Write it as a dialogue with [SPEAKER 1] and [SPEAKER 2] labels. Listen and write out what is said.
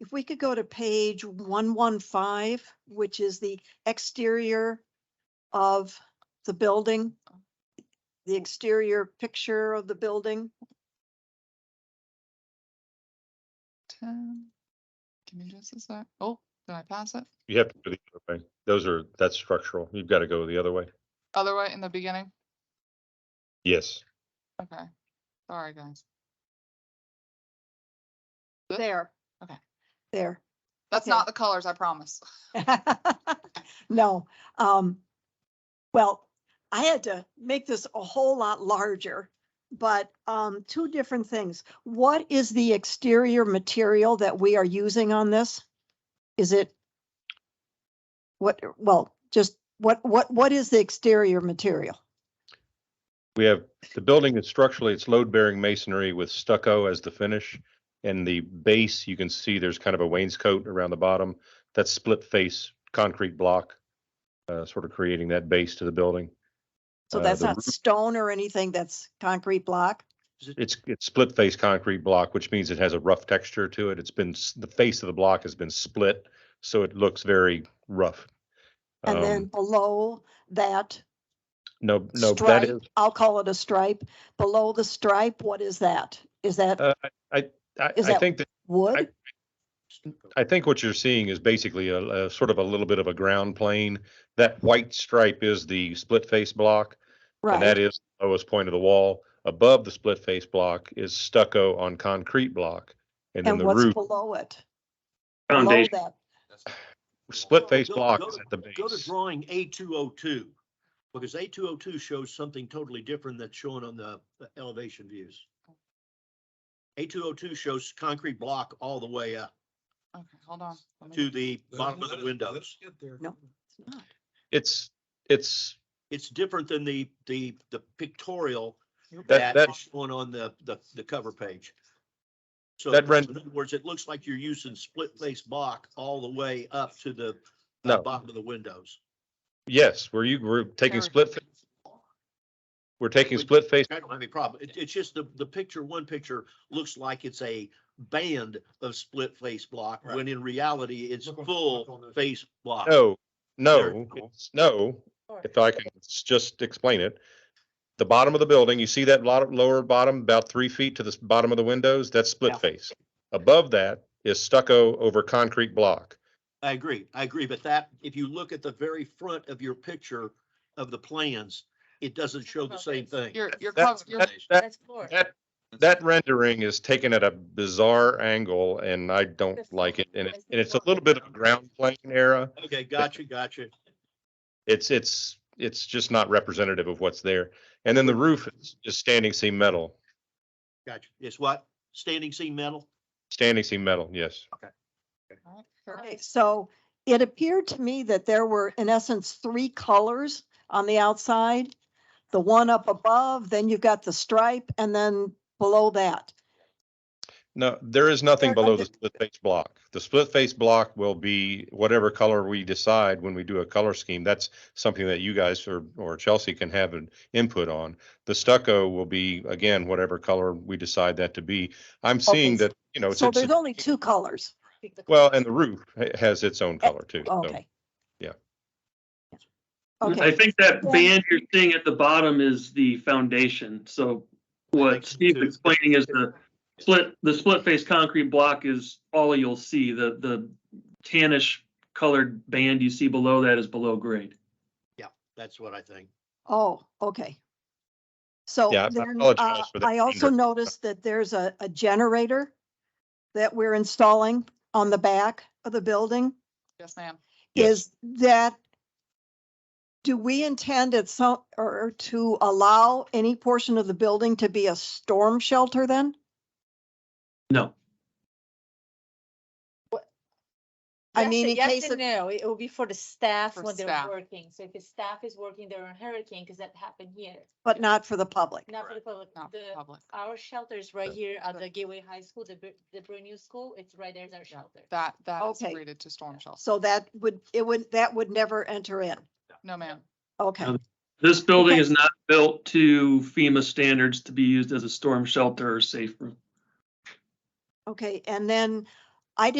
[SPEAKER 1] If we could go to page one one five, which is the exterior of the building. The exterior picture of the building.
[SPEAKER 2] Ten. Give me just a sec. Oh, did I pass it?
[SPEAKER 3] You have to go the other way. Those are, that's structural. You've got to go the other way.
[SPEAKER 2] Other way in the beginning?
[SPEAKER 3] Yes.
[SPEAKER 2] Okay. Sorry, guys. Good.
[SPEAKER 1] There.
[SPEAKER 2] Okay.
[SPEAKER 1] There.
[SPEAKER 2] That's
[SPEAKER 1] Okay.
[SPEAKER 2] not the colors, I promise.
[SPEAKER 1] No, um, well, I had to make this a whole lot larger, but, um, two different things. What is the exterior material that we are using on this? Is it? What, well, just what, what, what is the exterior material?
[SPEAKER 3] We have, the building is structurally, it's load bearing masonry with stucco as the finish. And the base, you can see there's kind of a wainscot around the bottom. That's split face concrete block, uh, sort of creating that base to the building.
[SPEAKER 1] So
[SPEAKER 3] Uh,
[SPEAKER 1] that's
[SPEAKER 3] the
[SPEAKER 1] not
[SPEAKER 3] roof-
[SPEAKER 1] stone or anything, that's concrete block?
[SPEAKER 3] It's, it's split face concrete block, which means it has a rough texture to it. It's been, s- the face of the block has been split, so it looks very rough.
[SPEAKER 1] And then
[SPEAKER 3] Um,
[SPEAKER 1] below that
[SPEAKER 3] No, no, that
[SPEAKER 1] stripe,
[SPEAKER 3] is,
[SPEAKER 1] I'll call it a stripe, below the stripe, what is that? Is that
[SPEAKER 3] Uh, I,
[SPEAKER 1] is
[SPEAKER 3] I
[SPEAKER 1] that-
[SPEAKER 3] think that
[SPEAKER 1] wood?
[SPEAKER 3] I think what you're seeing is basically a, a sort of a little bit of a ground plane. That white stripe is the split face block, and
[SPEAKER 1] Right,
[SPEAKER 3] that is the lowest point of the wall. Above the split face block is stucco on concrete block, and then
[SPEAKER 1] and
[SPEAKER 3] the
[SPEAKER 1] what's
[SPEAKER 3] roof,
[SPEAKER 1] below it? Below
[SPEAKER 4] Foundation.
[SPEAKER 1] that,
[SPEAKER 3] split face
[SPEAKER 5] Go-
[SPEAKER 3] block
[SPEAKER 5] go
[SPEAKER 3] is
[SPEAKER 5] to-
[SPEAKER 3] at the
[SPEAKER 5] Go to
[SPEAKER 3] base.
[SPEAKER 5] drawing A two oh two, because A two oh two shows something totally different that's shown on the the elevation views. A two oh two shows concrete block all the way up
[SPEAKER 2] Okay, hold on. let me-
[SPEAKER 5] to the bottom of
[SPEAKER 4] Let
[SPEAKER 5] the
[SPEAKER 4] us- let us
[SPEAKER 5] windows.
[SPEAKER 4] get there.
[SPEAKER 1] No. it's not.
[SPEAKER 3] It's, it's,
[SPEAKER 5] It's different than the, the, the pictorial
[SPEAKER 3] That-
[SPEAKER 5] that
[SPEAKER 3] that-
[SPEAKER 5] is shown on the, the, the cover page. So
[SPEAKER 3] That
[SPEAKER 5] in
[SPEAKER 3] rend-
[SPEAKER 5] other words, it looks like you're using split face block all the way up to the uh,
[SPEAKER 3] No.
[SPEAKER 5] bottom of the windows.
[SPEAKER 3] yes, where you, we're taking
[SPEAKER 2] Sorry.
[SPEAKER 3] split, fa- we're taking
[SPEAKER 5] We-
[SPEAKER 3] split face,
[SPEAKER 5] I don't have any problem. It, it's just the, the picture, one picture looks like it's a band of split face block,
[SPEAKER 4] Right.
[SPEAKER 5] when in reality, it's
[SPEAKER 4] Look on- look on
[SPEAKER 5] full
[SPEAKER 4] the-
[SPEAKER 5] face block.
[SPEAKER 3] no,
[SPEAKER 5] There.
[SPEAKER 3] no, it's- no. If I can s- just explain it. The bottom of the building, you see that lot, lower bottom, about three feet to the s- bottom of the windows, that's split
[SPEAKER 5] Yeah.
[SPEAKER 3] face. Above that is stucco over concrete block.
[SPEAKER 5] I agree, I agree, but that, if you look at the very front of your picture of the plans, it doesn't show the same thing.
[SPEAKER 2] Your, your
[SPEAKER 3] That,
[SPEAKER 2] color, your,
[SPEAKER 3] that- that,
[SPEAKER 6] That's floor.
[SPEAKER 3] that, that rendering is taken at a bizarre angle and I don't
[SPEAKER 6] That's
[SPEAKER 3] like it.
[SPEAKER 6] fine.
[SPEAKER 3] And it's,
[SPEAKER 6] That's
[SPEAKER 3] and it's a
[SPEAKER 6] fine.
[SPEAKER 3] little bit of a ground plane era.
[SPEAKER 5] Okay, gotcha, gotcha.
[SPEAKER 3] It's, it's, it's just not representative of what's there. And then the roof is, is standing seam metal,
[SPEAKER 5] Gotcha. It's what? Standing seam metal?
[SPEAKER 3] standing seam metal, yes.
[SPEAKER 2] Alright,
[SPEAKER 1] Okay,
[SPEAKER 2] perfect.
[SPEAKER 1] so it appeared to me that there were in essence three colors on the outside. The one up above, then you've got the stripe and then below that.
[SPEAKER 3] No, there is nothing
[SPEAKER 1] Or
[SPEAKER 3] below
[SPEAKER 1] under-
[SPEAKER 3] the split face block. The split face block will be whatever color we decide when we do a color scheme. That's something that you guys or, or Chelsea can have an input on. The stucco will be, again, whatever color we decide that to be. I'm seeing
[SPEAKER 1] so-
[SPEAKER 3] that, you know, it's,
[SPEAKER 1] So there's
[SPEAKER 3] it's-
[SPEAKER 1] only two colors.
[SPEAKER 3] well, and the roof ha- has its own color too. so-
[SPEAKER 1] Eh, Okay.
[SPEAKER 3] yeah.
[SPEAKER 1] Okay.
[SPEAKER 7] I think that
[SPEAKER 1] Yeah.
[SPEAKER 7] band you're seeing at the bottom is the foundation, so
[SPEAKER 5] think
[SPEAKER 7] what
[SPEAKER 5] so,
[SPEAKER 7] Steve's
[SPEAKER 5] too.
[SPEAKER 7] explaining is the split, the split face concrete block is all you'll see, the, the tannish colored band you see below that is below grade.
[SPEAKER 5] That's what I think.
[SPEAKER 1] Oh, okay. So
[SPEAKER 3] Yeah, I
[SPEAKER 1] then,
[SPEAKER 3] apologize
[SPEAKER 1] uh,
[SPEAKER 3] for that
[SPEAKER 1] I also
[SPEAKER 3] render.
[SPEAKER 1] noticed that there's a, a generator that we're installing on the back of the building.
[SPEAKER 2] Yes, ma'am.
[SPEAKER 3] Yes.
[SPEAKER 1] Is that, do we intend at some, or to allow any portion of the building to be a storm shelter then?
[SPEAKER 7] No,
[SPEAKER 1] I
[SPEAKER 6] Yes
[SPEAKER 1] mean,
[SPEAKER 6] and-
[SPEAKER 1] in
[SPEAKER 6] yes
[SPEAKER 1] case
[SPEAKER 6] and
[SPEAKER 1] it-
[SPEAKER 6] No, it will be for the staff
[SPEAKER 2] For
[SPEAKER 6] when they're
[SPEAKER 2] staff.
[SPEAKER 6] working. So if the staff is working, they're on hurricane, because that happened here.
[SPEAKER 1] But not for the public?
[SPEAKER 6] Not for the public.
[SPEAKER 2] Not
[SPEAKER 6] The,
[SPEAKER 2] public.
[SPEAKER 6] our shelter is right
[SPEAKER 3] Yeah.
[SPEAKER 6] here at
[SPEAKER 2] But-
[SPEAKER 6] the Gateway High School, the, br- the brand new school, it's right there, there's
[SPEAKER 2] Yeah,
[SPEAKER 6] our shelter.
[SPEAKER 2] That, that is
[SPEAKER 1] Okay.
[SPEAKER 2] rated to storm shelter.
[SPEAKER 1] So that would, it would, that would never enter in.
[SPEAKER 2] No, ma'am.
[SPEAKER 1] Okay,
[SPEAKER 7] Um, this building
[SPEAKER 1] Okay.
[SPEAKER 7] is not built to FEMA standards to be used as a storm shelter or safe room.
[SPEAKER 1] okay. And then